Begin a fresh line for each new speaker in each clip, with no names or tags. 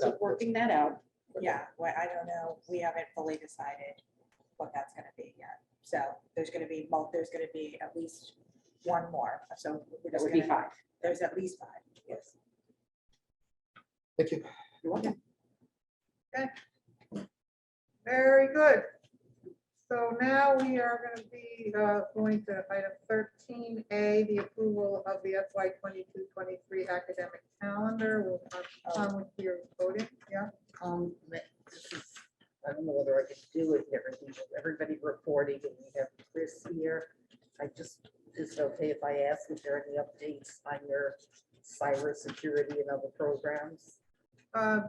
So working that out.
Yeah, well, I don't know, we haven't fully decided what that's gonna be yet. So there's gonna be, mul- there's gonna be at least one more, so. we're
That
just
would be
gonna-
five.
There's at least five, yes.
Thank you.
You're welcome.
Very good. So now we are going to be uh, going to item thirteen A, the approval of the FY 22-23 academic calendar. We'll have Tom with your voting, yeah.
Um, ma- this is, I don't know whether I could do it here, we have everybody reporting, and we have Chris here. I just, is it okay if I ask if there are any updates on your cybersecurity and other programs?
Uh,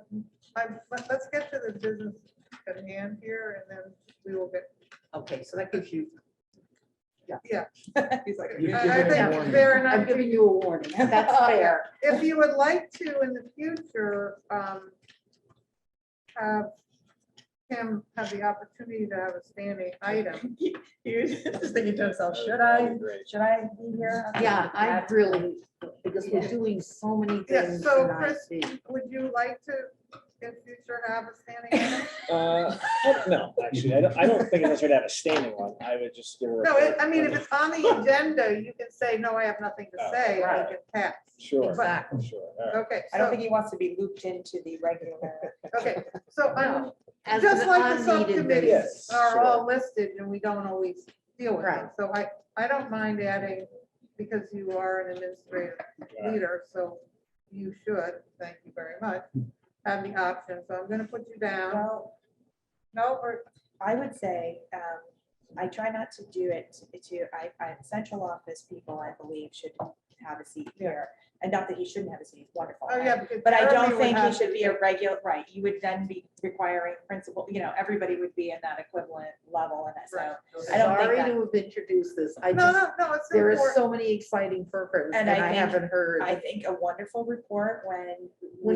I'm- let- Let's get to the business at hand here and then we will get,
Okay, so that gives you.
He's like,
You've
I-
given
I
a
think
warning.
fair
I'm
enough.
giving you a warning, that's fair.
If you would like to in the future, um, have him have the opportunity to have a standing item,
you're just thinking to himself, should I, should I be here?
Yeah, I really, because we're doing so many
Yeah,
things.
so
and I
Chris-
think-
Would you like to, in future, have a standing? item?
Uh, No, actually, I don't, I don't think I necessarily have a standing one. I would just give her. a
No, it-
report
I mean, if
when-
it's on the agenda, you can say, no, I have nothing to
Oh,
say, and it can pass.
Sure, sure.
Exactly.
all right.
Okay,
I don't
so,
think he wants to be looped into the regular.
okay, so I'm,
No, as
just
an
like the
unneeded
subcommittees
basis.
are all listed and we don't always deal with them.
Right.
So I, I don't mind adding, because you are an administrative
Yeah.
leader, so you should, thank you very much, have the option. So I'm gonna put you down.
Well,
No, or,
I would say, um, I try not to do it to, I, I, central office people, I believe, should have a seat here. And not that he shouldn't have a seat, he's wonderful.
oh, yeah. because
But I
Jeremy
don't
would
think he
have-
should be a regular, right, you would then be requiring principal, you know, everybody would be in that equivalent level and so.
Right.
I don't think
Sorry
that-
to have introduced this, I
No,
just.
no, no, it's
There is
important.
so many exciting programs
And
and
I
I
think-
haven't heard
I think a wonderful report when.
what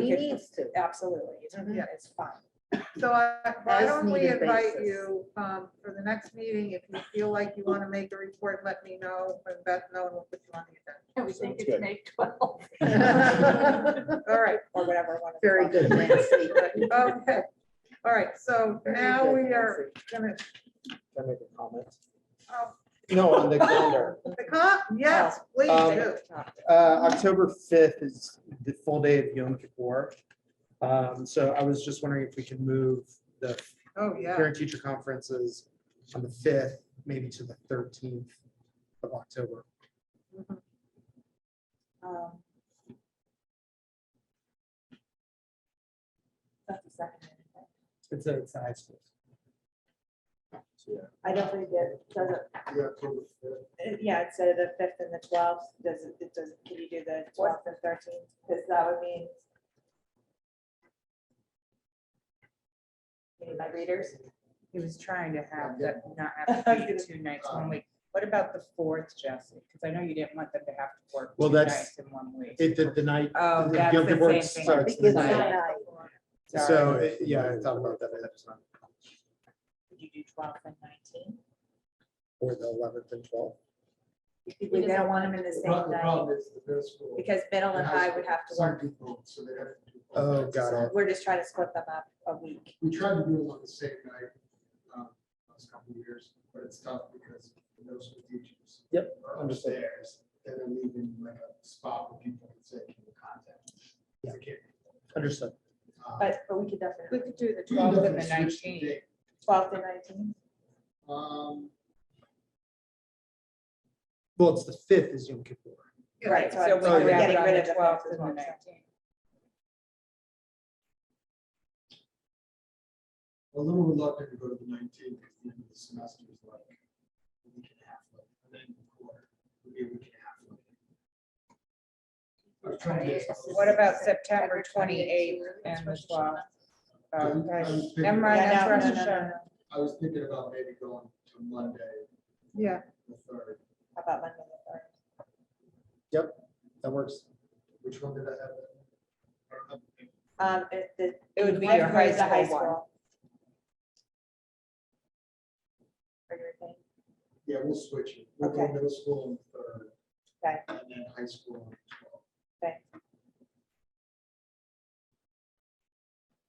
we Mm-hmm.
he
could-
needs to.
Absolutely, it's,
Mhm.
it's fine.
So I- why
As
don't we
needed
invite
basis.
you um, for the next meeting? If you feel like you want to make a report, let me know. And Beth, no one will put you on the
Sounds good.
agenda. All right,
Or whatever. one of the
Very good, Nancy.
okay. All right, so
Very
now
good,
we are
Nancy.
gonna,
Can I make a comment?
oh,
No, on the calendar.
the con, yes,
Oh,
please
Um,
do.
Uh, October fifth is the full day of Yom Kippur. Um, So I was just wondering if we can move the
Oh, yeah.
parent teacher conferences on the fifth, maybe to the thirteenth of October.
Um, That's the second. one.
It's a, it's a high school.
I don't think that, does it, Uh, Yeah, it's uh, the fifth and the twelfth, does it, it does, can you do the twelfth and thirteenth, because that would mean. Any of my readers,
He was trying to have that, not have to be two nights, one week. What about the fourth, Jesse? Because I know you didn't want them to have to work
Well,
two
that's-
nights in one week.
It, the, the night.
Oh,
the
that's
Yom
the
Kippur
same thing.
starts the
It's
night.
night.
So,
Sorry.
it- yeah, I thought about that. but that's not-
could you do twelfth and nineteen?
Or the eleventh and twelfth.
We don't want them in the same night,
is the middle school.
because middle and high would have to
Some
work,
people, so they have to do.
Oh,
both.
got it.
we're just trying to split them up a week.
We tried to do it on the same night, um, last couple of years, but it's tough because the middle school teachers.
Yep,
Are
understood.
upstairs, and they're leaving like a spot where people can say, can you contact? us?" They can't.
Understood.
Um,
But, but we could
We
definitely,
could do the
we can
twelfth and the
definitely switch
nineteenth.
date.
twelfth and nineteen,
Um,
Well, it's the fifth is Yom Kippur.
Yeah.
right, so I'm-
we
we're
could
do it
getting
on
rid
the
of the
12th
fifth and
and the
the nineteenth.
a little reluctant to go to the nineteenth, because the end of the semester is like a week and a half, like, and then a quarter, maybe a week and a half. like. I was trying to.
What about September twenty-eighth and the twelfth? Oh,
I'm-
right.
I'm thinking-
Never mind, that's
Yeah, no, no,
Rosh
no, no,
Hashanah.
I was thinking about maybe going to Monday,
Yeah,
the third.
How About Monday the third.
That works.
Which one did I have? I don't have it.
Um, it, the.
It would be your
ninth
high
grade, the
school one.
Or your thing,
Yeah, we'll switch it. We'll go
Okay.
middle school on the third
okay,
and then high school on the twelfth.
okay.